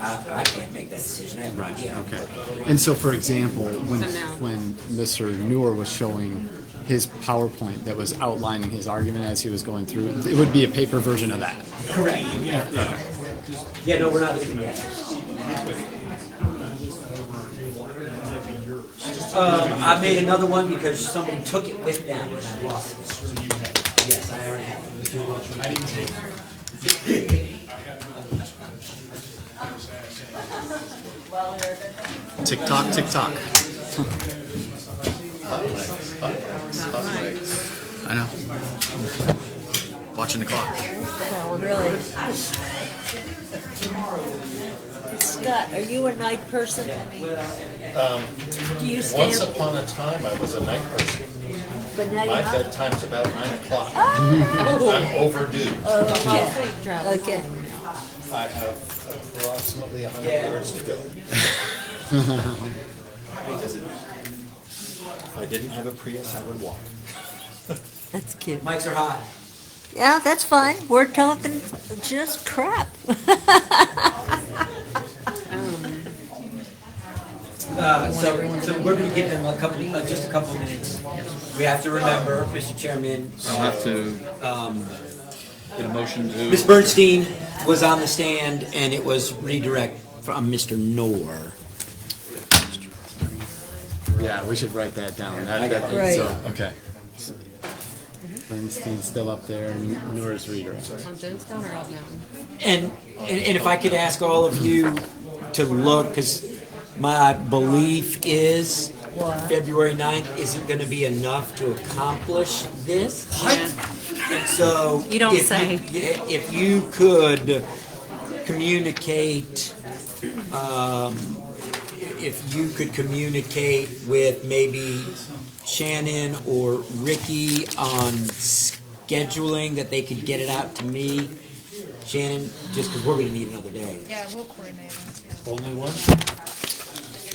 I, I can't make that decision, I have no idea. Okay. And so, for example, when, So no. when Mr. Noor was showing his PowerPoint that was outlining his argument as he was going through, it would be a paper version of that. Correct, yeah. Yeah, no, we're not looking at that. Um, I made another one because somebody took it with them and I lost it. Yes, I already have it. Tick tock, tick tock. I know. Watching the clock. No, really. Scott, are you a night person? Um, Do you stay Once up, upon a time, I was a night person. but now My you're not? bedtime's about nine o'clock. I'm overdue. Okay, I have approximately a hundred Yeah. yards to go. If I didn't have a Prius, I would walk. that's cute. Mics are hot. Yeah, that's fine. We're talking just crap. Uh, so, so we're gonna give them a couple, uh, just a couple minutes. We have to remember, Mr. Chairman, I'll have to um, get a motion to. Ms. Bernstein was on the stand and it was redirect from Mr. Noor. Yeah, we should write that down. I That, got that, it. so, Right. okay. Bernstein's still up there, and Noor's redirect. On Jonestown or Out Mountain? And, and, and if I could ask all of you to look, because my belief is February 9th isn't going to be enough to accomplish this. And so. You don't if say. yeah, If you could communicate, um, if you could communicate with maybe Shannon or Ricky on scheduling, that they could get it out to me. Shannon, just because we're going to need another day. Yeah, we'll coordinate. Only one?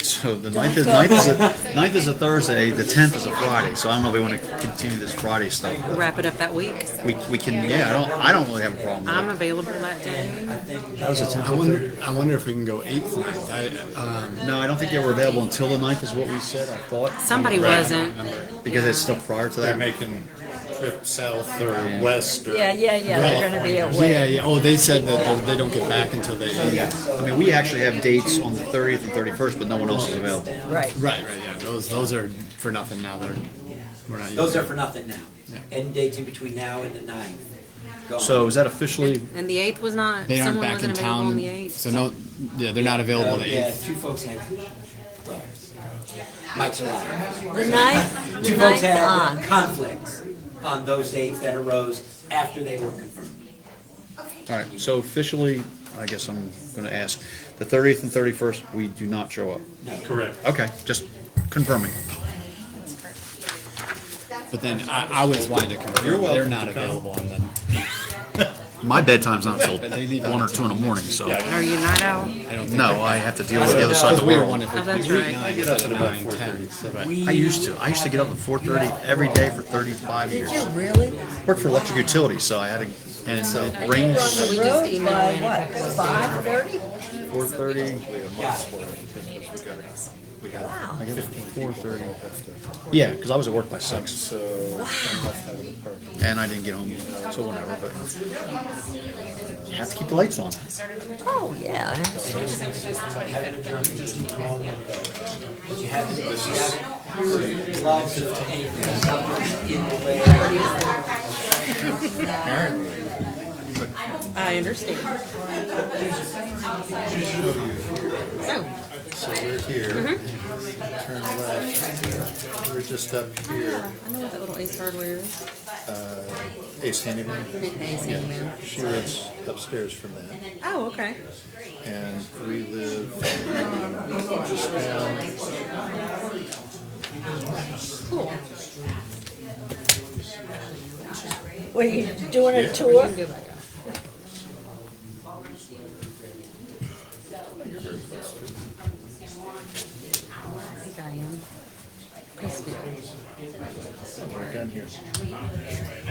So the ninth is, ninth is, a- ninth is a Thursday, the tenth is a Friday, so I don't know if we want to continue this Friday stuff. but Wrap it up that week. We, we can, yeah, I don't, I don't really have a problem with it. I'm available that day. I wonder, I wonder if we can go eighth ninth. I, um, No, I don't think they were available until the ninth is what we said, I thought. Somebody Right. wasn't. Because it's still prior to They're that. making trip south or west or. Yeah, yeah, yeah, they're gonna be away. yeah, yeah. Oh, they said that they- they don't get back until they. Yeah, I mean, we actually have dates on the thirtieth and thirty-first, but no one else is available. Right. Right, right, yeah. Those, those are for nothing now. They're, we're not. Those using are for nothing now. End dates in between now and the ninth. Gone. So is that officially, And the eighth was not, They aren't someone back in wasn't available on town, the eighth. so no, yeah, they're not available Oh, the yeah, eighth. two folks had. Mike's alive. The ninth, Two the folks ninth had on. conflicts on those dates that arose after they were confirmed. all right, so officially, I guess I'm gonna ask, the thirtieth and thirty-first, we do not show up. No. Correct. Okay, just confirming. But then I, I was wanting to confirm, they're welcome not to come. available on the, My bedtime's not till They leave one or two in the morning, so, Are you not out? I don't think. no, I have to deal with the other side Because of the we were world. one if Oh, it that's was right. nine I get up instead at of about nine, four ten. thirty. so, right. We- I used to. I used to get up at four thirty every day for thirty-five Did years. you really? Worked for electric utilities, so I had to, and so rings We just emailed in. What, five thirty? four thirty. Wow. Yeah, because I was at work by six, So. and I didn't get home till whenever. But you have to keep the lights on. Oh, yeah. You haven't, you haven't lots of anything, something in the way. I understand. So, So we're here. Turn left. We're just up here. I know what that little ace hardware is. Ace Handyman. Ace Yeah, Handyman. She lives upstairs from that. Oh, okay. and we live just down. Cool. Were you doing a tour? Go back up. I think I am. Peaceville. We're down here.